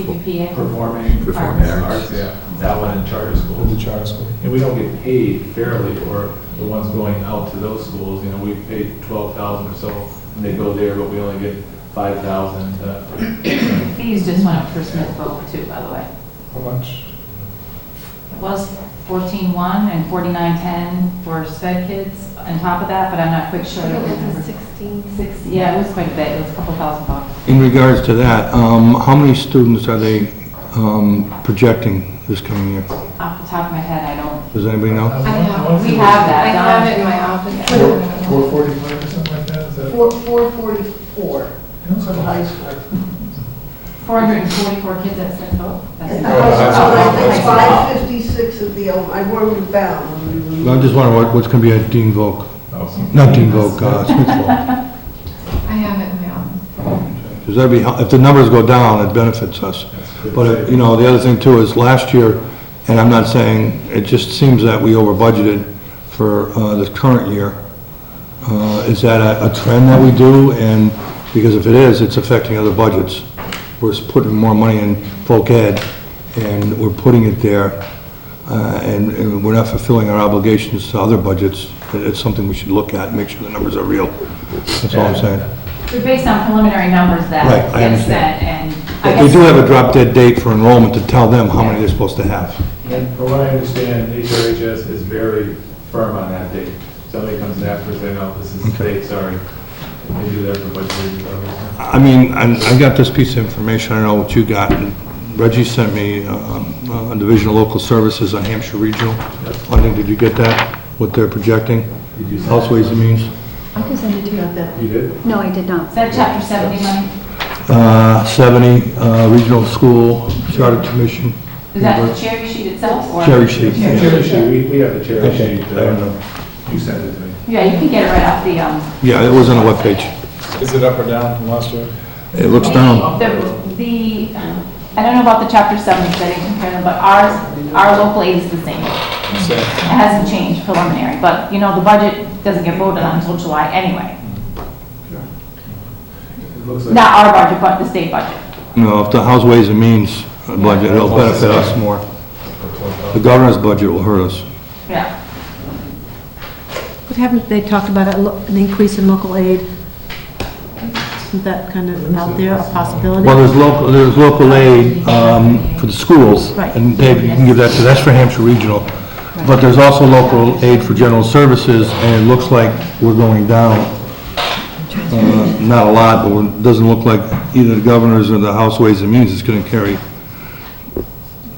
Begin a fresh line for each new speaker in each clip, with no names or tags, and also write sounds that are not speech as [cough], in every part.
PPPA.
performing
Performing
arts, yeah, that one in charter
With the
schools.
charter school.
And we don't get paid fairly for the ones going out to those schools, you know, we pay twelve thousand or so, and they go there, but we only get five thousand to.
Fees just went up for Smithville too, by the way.
How much?
It was fourteen-one and forty-nine-ten for sped kids on top of that, but I'm not quite sure. of the number.
16.
Six, yeah, it was quite a bit, it was a couple thousand bucks.
In regards to that, um, how many students are they um, projecting this coming year?
Off the top of my head, I don't,
Does anybody know?
I have,
we have
I
that.
have it
Don.
Four,
in my office.
four forty-five or something like that, is that?
Four, four forty-four
It looks
for
like
the
a
high
high
school.
four hundred and forty-four kids at Smithville.
At the
Oh,
high
that's-
school, I
that's-
think five fifty-six at the, old- I worked with Val. when we were-
I just wonder what, what's going to be at Dean Volk,
school.
not Dean Volk, uh, [laughs] Smithville.
I have it in my office.
Because that'd be, hel- if the numbers go down, it benefits us. But, uh, you know, the other thing too is last year, and I'm not saying, it just seems that we over budgeted for uh, this current year. Uh, Is that a a trend that we do? And, because if it is, it's affecting other budgets. We're s- putting more money in folk ed, and we're putting it there, uh, and and we're not fulfilling our obligations to other budgets. It- It's something we should look at, and make sure the numbers are real. That's all I'm saying.
They're based on preliminary numbers that
Right, I
get
understand.
sent, and I
But We
guess
do have a drop dead date for enrollment to tell them how many they're supposed to have.
And from what I understand, HRHS is very firm on that date. Somebody comes after us, they know, oh, this is fake, sorry. They do that for budget reasons, obviously.
I mean, I I got this piece of information, I don't know what you got. Reggie sent me um, uh, Division of Local Services on Hampshire Regional. Funding, did you get that, what they're projecting?
Did you send
Health
it?
Ways and Means?
I can send it to you.
You did?
No, I did not.
is that chapter seventy money?
Uh, 70, uh, Regional School Charter Commission.
Is that the cherry sheet itself or?
Cherry sheet.
Yeah, Cherry sheet, we, we have the cherry
Okay,
sheet.
I don't know.
You sent it to me.
Yeah, you can get it right off the, um,
Yeah, it was on the webpage.
Is it up or down from last year?
It looks down.
The, the- I don't know about the chapter seven, because I didn't compare them, but ours, our local aid is the same. It
Same.
hasn't changed preliminary, but, you know, the budget doesn't get voted on until July anyway.
It looks like.
Not our budget, but the state budget.
No, if the House Ways and Means budget, it'll benefit us more. The governor's budget will hurt us.
Yeah.
But haven't they talked about a lo- an increase in local aid? Isn't that kind of out there, a possibility?
Well, there's local, there's local aid um, for the schools.
Right.
And Dave, you can give that to, that's for Hampshire Regional. But there's also local aid for general services, and it looks like we're going down. Uh, Not a lot, but it doesn't look like either the governors or the House Ways and Means is going to carry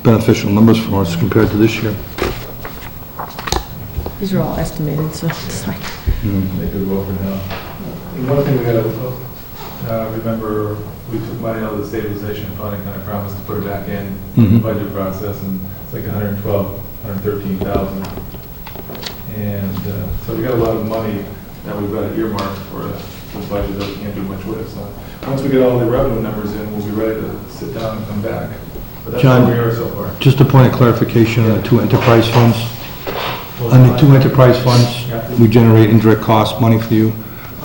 beneficial numbers for us compared to this year.
These are all estimated, so it's like...
They could go up and down. And One thing we gotta, uh, remember, we took money out of the stabilization fund and kind of promised to put it back in the
Mhm.
budget process, and it's like 112, 113,000. And uh, so we got a lot of money that we've got earmarked for the budget that we can't do much with, so once we get all the revenue numbers in, we'll be ready to sit down and come back. But that's where
John.
we are so far.
Just a point of clarification on the two enterprise funds. On the two enterprise funds, we generate indirect cost money for you,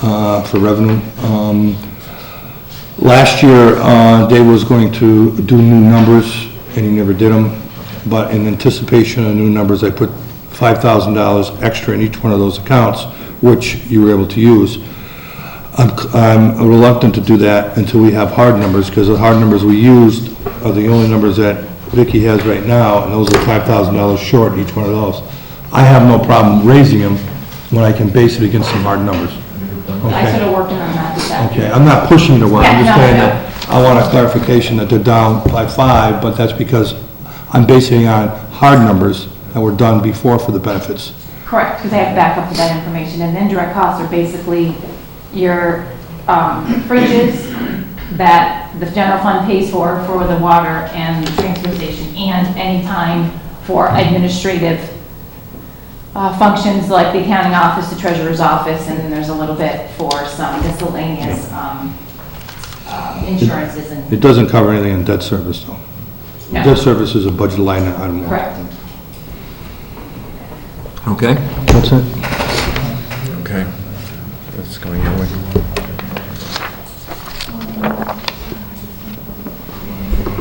uh, for revenue. Um, Last year, uh, Dave was going to do new numbers, and he never did them, but in anticipation of new numbers, I put $5,000 extra in each one of those accounts, which you were able to use. I'm I'm reluctant to do that until we have hard numbers, because the hard numbers we used are the only numbers that Vicky has right now, and those are $5,000 short, each one of those. I have no problem raising them when I can base it against some hard numbers.
I
Okay.
should have worked on that this afternoon.
Okay, I'm not pushing the one,
Yeah,
I'm just
no,
saying
no.
that I want a clarification that they're down by five, but that's because I'm basing it on hard numbers that were done before for the benefits.
Correct, because I have backup to that information, and indirect costs are basically your um, fridges that the general fund pays for, for the water and the transfer station, and any time for administrative uh, functions like the accounting office, the treasurer's office, and then there's a little bit for some miscellaneous um, uh, insurances and,
It doesn't cover anything in debt service, though.
No.
Debt service is a budget line item.
correct.
Okay?
That's it.
Okay. That's going your way.